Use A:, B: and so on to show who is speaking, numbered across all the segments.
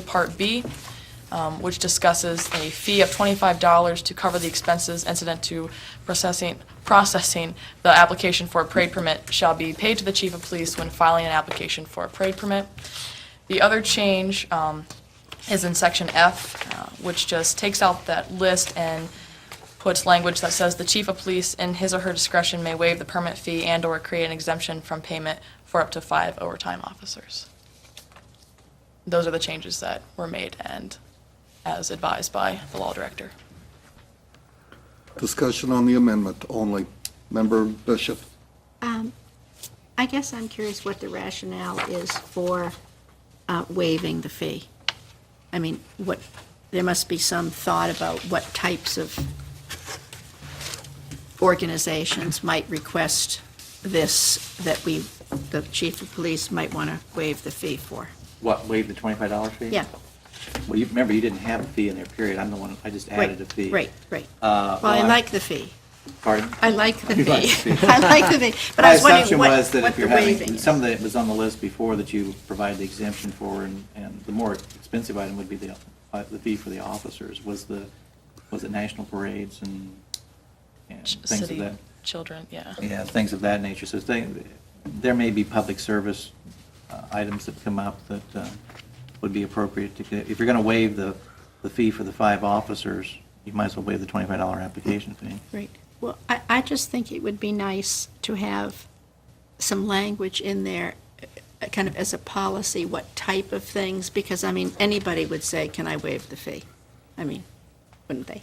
A: Part B, um, which discusses a fee of $25 to cover the expenses incident to processing, processing the application for a parade permit shall be paid to the chief of police when filing an application for a parade permit. The other change um, is in section F, uh, which just takes out that list and puts language that says the chief of police, in his or her discretion, may waive the permit fee and/or create an exemption from payment for up to five overtime officers. Those are the changes that were made and as advised by the law director.
B: Discussion on the amendment only. Member Bishop,
C: I guess I'm curious what the rationale is for uh, waiving the fee. I mean, what, there must be some thought about what types of organizations might request this, that we, the chief of police might want to waive the fee for.
D: What, waive the twenty-five dollar fee?
C: Yeah,
D: Well, you, remember, you didn't have a fee in there, period. I'm the one, I just
C: right,
D: added a fee.
C: right, right.
D: Uh,
C: Well, I
D: well, I-
C: like the fee.
D: Pardon?
C: I like the
D: You like the
C: fee.
D: fee.
C: I like the fee. But
D: My
C: I was wondering
D: assumption
C: what,
D: was that
C: what
D: if
C: the
D: you're
C: waiving
D: having,
C: is.
D: some of that was on the list before that you provide the exemption for, and, and the more expensive item would be the, uh, the fee for the officers. Was the, was it national parades and, and things of
A: City
D: that?
A: children, yeah.
D: Yeah, things of that nature. So thing, there may be public service uh, items that come up that uh, would be appropriate to, get- if you're going to waive the, the fee for the five officers, you might as well waive the $25 application fee.
C: Right. Well, I, I just think it would be nice to have some language in there, uh, kind of as a policy, what type of things, because, I mean, anybody would say, can I waive the fee? I mean, wouldn't they?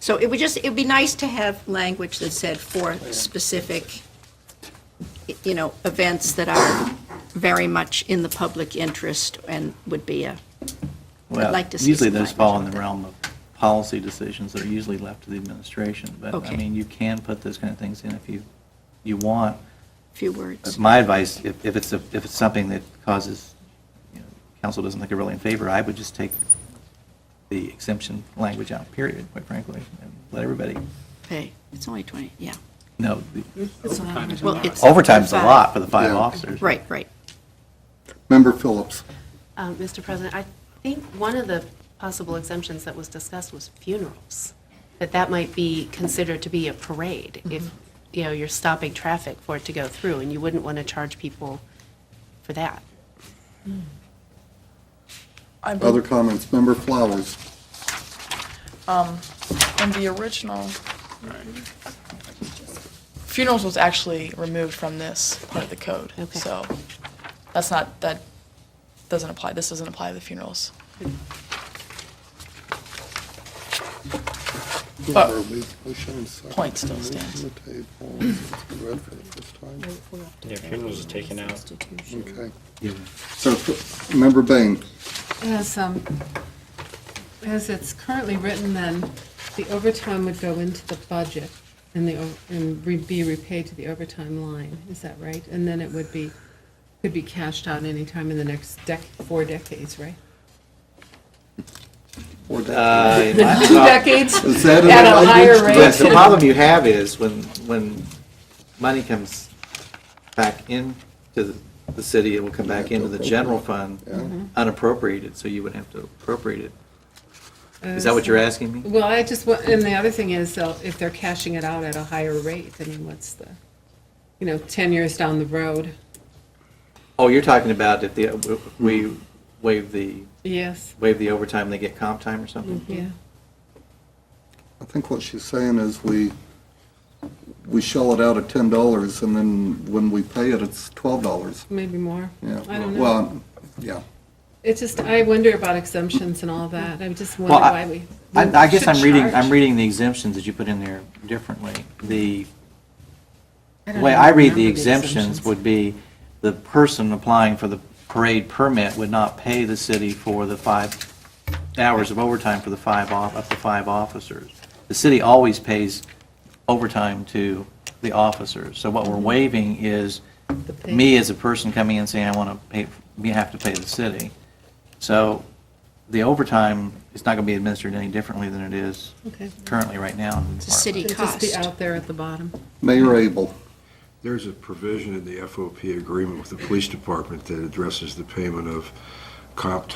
C: So it would just, it'd be nice to have language that said for specific, y- you know, events that are very much in the public interest and would be a,
D: Well,
C: like to see
D: Usually
C: some
D: those fall in
C: language
D: the
C: on that.
D: realm of policy decisions that are usually left to the administration. But, I
C: Okay.
D: mean, you can put those kind of things in if you, you want.
C: few words.
D: My advice, if, if it's, a- if it's something that causes, you know, council doesn't think are really in favor, I would just take the exemption language out, period, quite frankly, and let everybody
C: Hey, it's only 20, yeah.
D: know. the-
C: Well, it's
D: Overtime's a lot for the five
B: Yeah.
D: officers.
C: Right, right.
B: Member Phillips,
E: Uh, Mr. President, I think one of the possible exemptions that was discussed was funerals, that that might be considered to be a parade if, you know, you're stopping traffic for it to go through, and you wouldn't want to charge people for that.
A: I believe-
B: other comments? Member Flowers,
A: in the original, funerals was actually removed from this part of the code.
E: Okay.
A: So that's not, that doesn't apply, this doesn't apply to the funerals.
F: Uh,
A: But- Point still stands.
G: Yeah, funerals are taken out.
B: Okay. So, Member Bain,
F: As, um, as it's currently written, then, the overtime would go into the budget and the, o- and re- be repaid to the overtime line, is that right? And then it would be, could be cashed out anytime in the next dec, four decades, right?
B: or that-
D: Uh, it might-
F: Two decades?
B: is that in
F: At a
B: the
F: higher
B: language?
F: rate.
D: But the problem you have is when, when money comes back into the- the city, it will come back into the general fund unappropriated, so you would have to appropriate it. Is that what you're asking me?
F: Well, I just, wa- and the other thing is, though, if they're cashing it out at a higher rate, I mean, what's the, you know, 10 years down the road?
D: Oh, you're talking about if the, we waive the,
F: Yes,
D: waive the overtime, they get comp time or something?
F: yeah.
B: I think what she's saying is we, we shell it out at ten dollars, and then when we pay it, it's twelve dollars.
F: Maybe more.
B: Yeah.
F: I don't know.
B: Well, yeah.
F: It's just, I wonder about exemptions and all that. I just wonder
D: Well, I-
F: why we.
D: I, I guess I'm
F: should
D: reading, I'm
F: charge.
D: reading the exemptions that you put in there differently. The The
F: I don't
D: way
F: even
D: I read the
F: remember
D: exemptions would be, the person applying for the parade permit would not pay the city for the five hours of overtime for the five, off up to five officers. The city always pays overtime to the officers. So what we're waiving is,
F: The pay.
D: me as a person coming in saying, I want to pay, we have to pay the city. So the overtime is not going to be administered any differently than it is
F: Okay.
D: currently right now.
C: It's a city
F: It'd just be
C: cost.
F: out there at the bottom.
B: Mayor Abel,
H: There's a provision in the FOP agreement with the police department that addresses the payment of comp